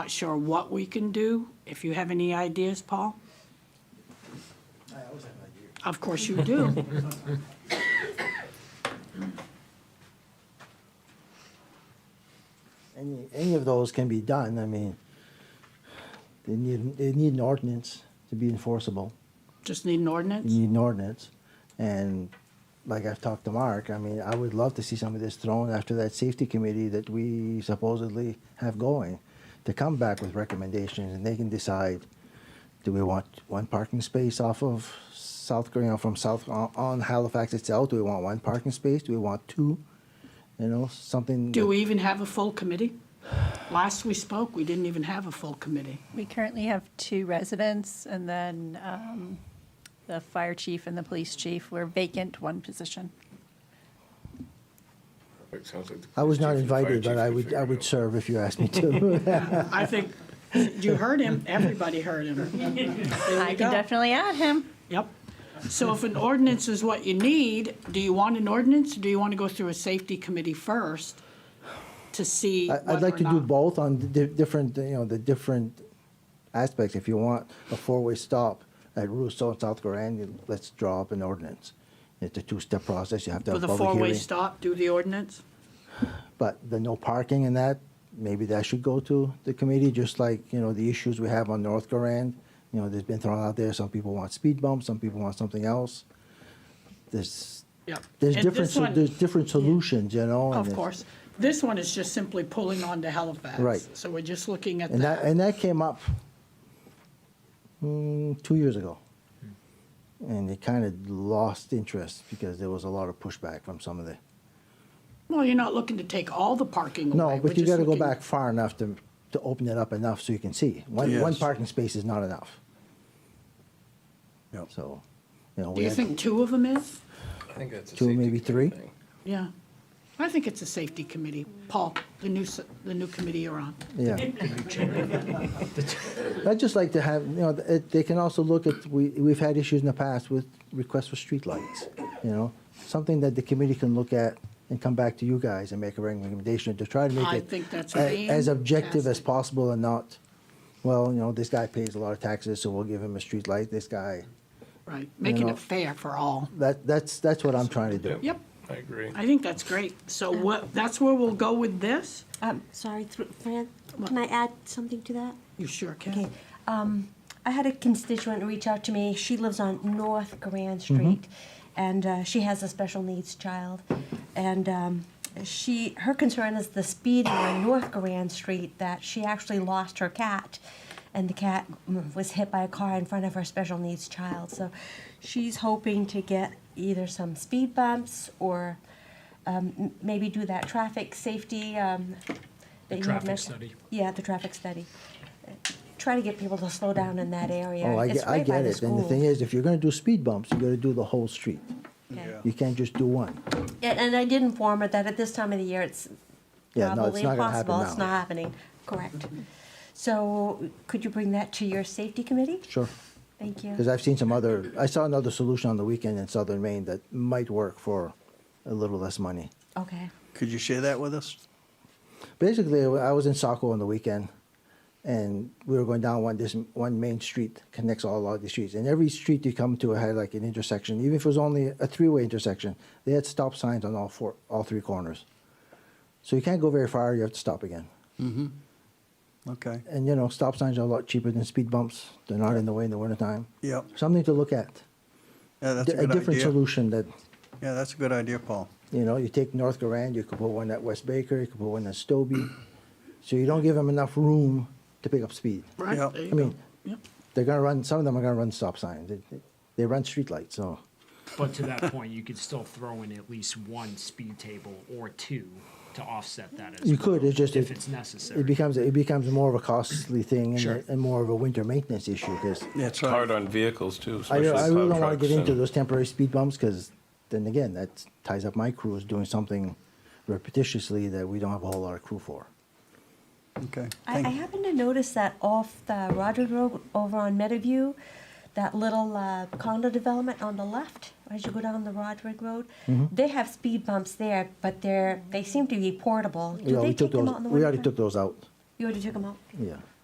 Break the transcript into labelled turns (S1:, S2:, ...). S1: Not sure what we can do, if you have any ideas, Paul?
S2: I always have ideas.
S1: Of course you do.
S2: Any, any of those can be done, I mean, they need, they need an ordinance to be enforceable.
S1: Just need an
S2: You
S1: ordinance?
S2: need an ordinance, and like I've talked to Mark, I mean, I would love to see some of this thrown after that safety committee that we supposedly have going, to come back with recommendations, and they can decide, do we want one parking space off of South, you know, from South, on- on Halifax itself, do we want one parking space, do we want two? You know, something.
S1: Do
S2: that-
S1: we even have a full committee? Last we spoke, we didn't even have a full committee.
S3: We currently have two residents and then um, the fire chief and the police chief. We're vacant one position.
S4: It sounds like the
S2: I was
S4: police
S2: not
S4: chief and fire
S2: invited,
S4: chief
S2: but I
S4: can
S2: would,
S4: figure
S2: I
S4: it
S2: would
S4: out.
S2: serve if you asked me to.
S1: I think, you heard him, everybody heard him. There
S3: I
S1: you go.
S3: can definitely add him.
S1: Yep. So if an ordinance is what you need, do you want an ordinance, or do you want to go through a safety committee first to see
S2: I- I'd
S1: whether
S2: like
S1: or
S2: to do
S1: not-
S2: both on the di- different, you know, the different aspects. If you want a four-way stop at Russo and South Grand, you- let's draw up an ordinance. It's a two-step process, you have to
S1: For
S2: have
S1: the
S2: a public
S1: four-way
S2: hearing.
S1: stop, do the ordinance?
S2: But the no parking and that, maybe that should go to the committee, just like, you know, the issues we have on North Grand. You know, there's been thrown out there, some people want speed bumps, some people want something else. There's,
S1: Yep.
S2: there's
S1: And
S2: different,
S1: this
S2: so-
S1: one-
S2: there's different solutions, you know? and
S1: Of
S2: it's-
S1: course. This one is just simply pulling on to Halifax.
S2: Right.
S1: So we're just looking at
S2: And that,
S1: that.
S2: and that came up mm, two years ago. And it kind of lost interest because there was a lot of pushback from some of the,
S1: Well, you're not looking to take all the parking away.
S2: no,
S1: We're
S2: but you
S1: just
S2: got to go
S1: looking-
S2: back far enough to, to open it up enough so you can see. One, one
S5: Yes.
S2: parking space is not enough.
S5: Yep.
S2: So, you know,
S1: Do
S2: we
S1: you
S2: had
S1: think two of them is?
S4: I think that's a
S2: two,
S4: safety
S2: maybe three?
S4: committee thing.
S1: Yeah. I think it's a safety committee. Paul, the new, s- the new committee you're on.
S2: Yeah. I'd just like to have, you know, it, they can also look at, we, we've had issues in the past with requests for streetlights, you know? Something that the committee can look at and come back to you guys and make a recommendation to try to make
S1: I
S2: it
S1: think that's
S2: a- as objective as
S1: fantastic.
S2: possible and not, well, you know, this guy pays a lot of taxes, so we'll give him a streetlight, this guy.
S1: Right, making
S2: know-
S1: it fair for all.
S2: That, that's, that's what I'm trying to do.
S1: Yep,
S4: I agree.
S1: I think that's great. So what, that's where we'll go with this?
S6: Um, sorry, through, Fran, can I add something to that?
S1: You sure
S6: Okay,
S1: can.
S6: um, I had a constituent reach out to me. She lives on North Grand Street, and uh, she has a special needs child, and um, she her concern is the speeding on North Grand Street. That she actually lost her cat, and the cat mm, was hit by a car in front of her special needs child. So, she's hoping to get either some speed bumps or um, m- maybe do that traffic safety. Um, that you had
S7: traffic
S6: mentioned.
S7: study.
S6: Yeah, the traffic study try to get people to slow down in that area.
S2: Oh, I
S6: It's
S2: get, I
S6: right by
S2: get
S6: the
S2: it. And the
S6: school.
S2: thing is, if you're gonna do speed bumps, you gotta do the whole street.
S6: Okay.
S2: You can't just do one.
S6: And, and I did inform her that at this time of the year, it's
S2: Yeah, no,
S6: probably
S2: it's not gonna happen
S6: impossible. It's not
S2: now.
S6: happening, correct. So could you bring that to your safety committee?
S2: Sure.
S6: Thank you.
S2: Because I've seen some other, I saw another solution on the weekend in southern Maine that might work for a little less money.
S6: Okay,
S5: Could you share that with us?
S2: Basically, I was in Saco on the weekend, and we were going down one this one main street connects all of these streets, and every street you come to had like an intersection, even if it was only a three-way intersection, they had stop signs on all four, all three corners. So you can't go very far; you have to stop again.
S5: Okay.
S2: And you know, stop signs are a lot cheaper than speed bumps. They're not in the way in the wintertime.
S5: Yep.
S2: Something to look at.
S5: Yeah, that's a
S2: a
S5: good
S2: different
S5: idea.
S2: solution that
S5: Yeah, that's a good idea, Paul.
S2: You know, you take North Garand, you could put one at West Baker, you could put one at Stobie. So you don't give them enough room to pick up speed.
S1: Right,
S5: Yeah.
S1: there you
S2: I mean,
S1: go. Yep.
S2: they're gonna run, some of them are gonna run stop signs. They- They, they run streetlights, so.
S7: But to that point, you could still throw in at least one speed table or two to offset that as
S2: You
S7: well,
S2: could, it's just
S7: if
S2: it-
S7: it's necessary.
S2: It becomes, it becomes more of a costly thing and,
S7: Sure.
S2: a- and more of a winter maintenance issue, because
S4: It's
S5: That's
S4: hard
S5: right.
S4: on vehicles too,
S2: I,
S4: especially
S2: re- I really
S4: plow
S2: don't wanna
S4: trucks
S2: get into
S4: and
S2: those temporary speed bumps, because then again, that ties up my crew is doing something repetitiously that we don't have a whole lot of crew for.
S5: Okay.
S6: I, I
S5: Thank-
S6: happened to notice that off the Roderick Road over on Meadowview, that little uh, condo development on the left, as you go down the Roderick Road,
S2: Mm-hmm.
S6: they have speed bumps there, but they're, they seem to be portable. Do
S2: Yeah,
S6: they
S2: we took
S6: take them
S2: those.
S6: out in the
S2: We already
S6: winter?
S2: took those out.
S8: You already took them out?
S6: Yeah.